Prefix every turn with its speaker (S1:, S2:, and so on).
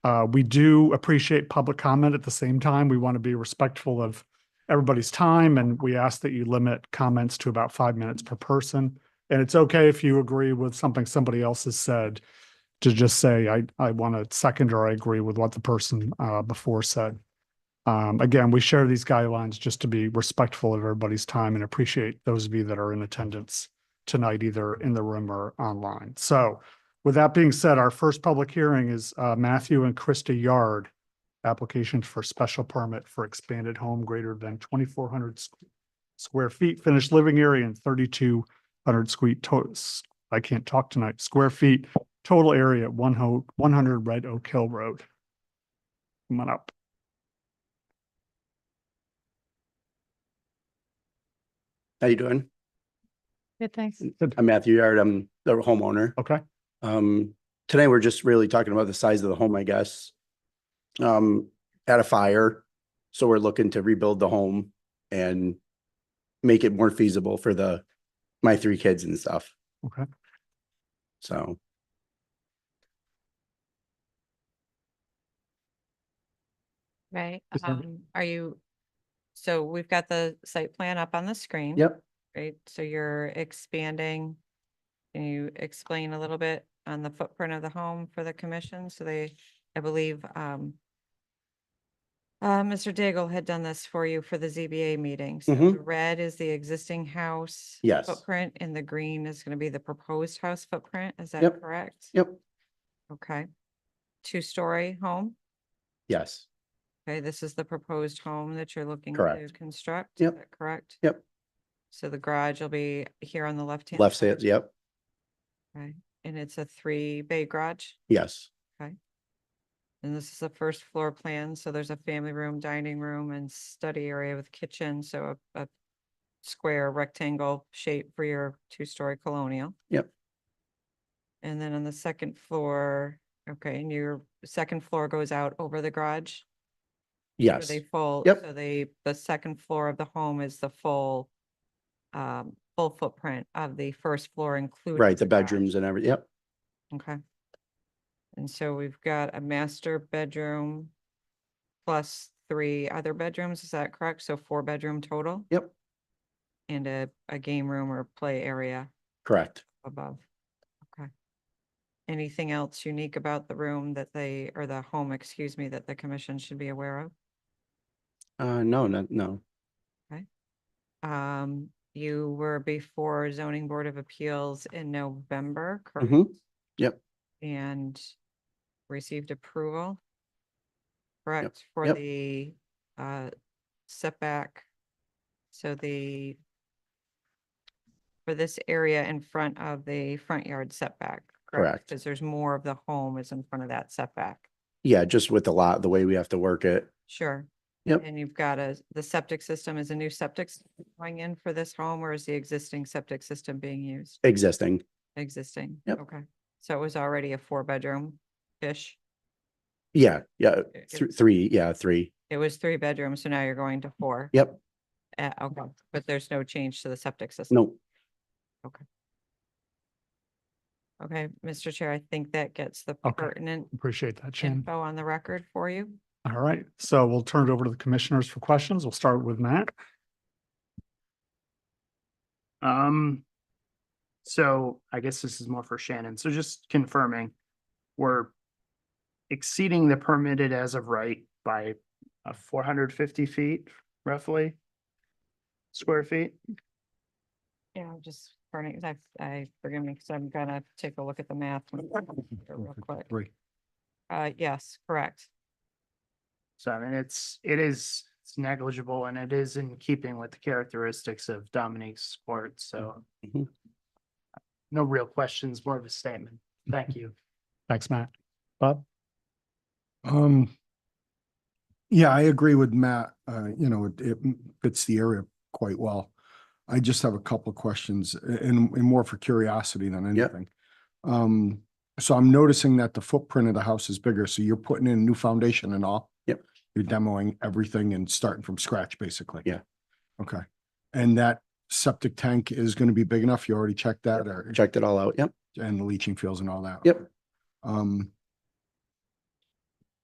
S1: Uh, we do appreciate public comment at the same time. We want to be respectful of everybody's time and we ask that you limit comments to about five minutes per person. And it's okay if you agree with something somebody else has said to just say, I, I want to second or I agree with what the person, uh, before said. Um, again, we share these guidelines just to be respectful of everybody's time and appreciate those of you that are in attendance tonight, either in the room or online. So with that being said, our first public hearing is uh, Matthew and Krista Yard. Application for special permit for expanded home greater than twenty-four hundred square feet, finished living area and thirty-two hundred squeet to, I can't talk tonight, square feet, total area at one ho, one hundred Red Oak Hill Road. Come on up.
S2: How you doing?
S3: Good, thanks.
S2: I'm Matthew Yard. I'm the homeowner.
S1: Okay,
S2: Um, today we're just really talking about the size of the home, I guess. Um, at a fire, so we're looking to rebuild the home and make it more feasible for the, my three kids and stuff.
S1: Okay.
S2: So,
S3: Right,
S2: Is that-
S3: um, are you, so we've got the site plan up on the screen.
S2: yep,
S3: Right, so you're expanding. Can you explain a little bit on the footprint of the home for the commission? So they, I believe, um. Uh, Mr. Daigle had done this for you for the ZBA meeting. So
S2: Mhm.
S3: the red is the existing house.
S2: Yes.
S3: Footprint and the green is gonna be the proposed house footprint. Is that
S2: Yep.
S3: correct?
S2: yep,
S3: Okay. Two-story home?
S2: yes,
S3: Okay, this is the proposed home that you're looking to
S2: Correct.
S3: construct? is
S2: Yep.
S3: that Correct?
S2: Yep.
S3: So the garage will be here on the left-hand?
S2: left side, yep,
S3: Okay, and it's a three-bay garage,
S2: yes,
S3: and this is the first floor plan, so there's a family room, dining room, and study area with kitchen, so a, a square rectangle shape for your two-story colonial.
S2: Yep.
S3: And then on the second floor, okay, and your second floor goes out over the garage? Are
S2: yes,
S3: They full.
S2: Yep.
S3: So they, the second floor of the home is the full, um, full footprint of the first floor including.
S2: right, the
S3: garage.
S2: bedrooms and every, yep,
S3: Okay. And so we've got a master bedroom plus three other bedrooms, is that correct? So four bedroom total?
S2: Yep.
S3: And a, a game room or play area
S2: correct.
S3: above. Okay. Anything else unique about the room that they, or the home, excuse me, that the commission should be aware of?
S2: Uh, no, no, no,
S3: Um, you were before zoning board of appeals in November, correct?
S2: Mhm. Yep.
S3: And received approval? Correct, for
S2: Yep.
S3: the uh setback. So the for this area in front of the front yard setback.
S2: Correct.
S3: Because there's more of the home is in front of that setback.
S2: yeah, just with the lot, the way we have to work it,
S3: Sure.
S2: Yep.
S3: And you've got a, the septic system, is a new septic s- going in for this home or is the existing septic system being used?
S2: existing,
S3: Existing?
S2: Yep.
S3: Okay, so it was already a four-bedroom-ish?
S2: yeah, yeah,
S3: It- it-
S2: th- three, yeah, three,
S3: It was three bedrooms, so now you're going to four?
S2: yep,
S3: Uh, okay, but there's no change to the septic system?
S2: no,
S3: Okay, Mr. Chair, I think that gets the
S1: Okay.
S3: pertinent
S1: appreciate that, Shannon.
S3: info on the record for you.
S1: All right, so we'll turn it over to the commissioners for questions. We'll start with Matt.
S4: Um, so I guess this is more for Shannon. So just confirming, we're exceeding the permitted as of right by uh four hundred fifty feet roughly square feet.
S3: Yeah, I'm just, burning- I, I, forgive me, because I'm gonna take a look at the math when- real quick.
S1: Three.
S3: Uh, yes, correct.
S4: So I mean, it's, it is, it's negligible and it is in keeping with the characteristics of Dominique's court, so.
S2: Mhm.
S4: No real questions, more of a statement. Thank you.
S1: Thanks, Matt. Bob?
S5: Um, yeah, I agree with Matt. Uh, you know, it, it fits the area quite well. I just have a couple of questions a- and, and more for curiosity than
S2: Yep.
S5: anything. Um, so I'm noticing that the footprint of the house is bigger, so you're putting in new foundation and all?
S2: Yep.
S5: You're demoing everything and starting from scratch, basically?
S2: Yeah.
S5: Okay. And that septic tank is gonna be big enough? You already checked that or?
S2: checked it all out, yep.
S5: and the leaching fields and all that.
S2: Yep.
S5: Um,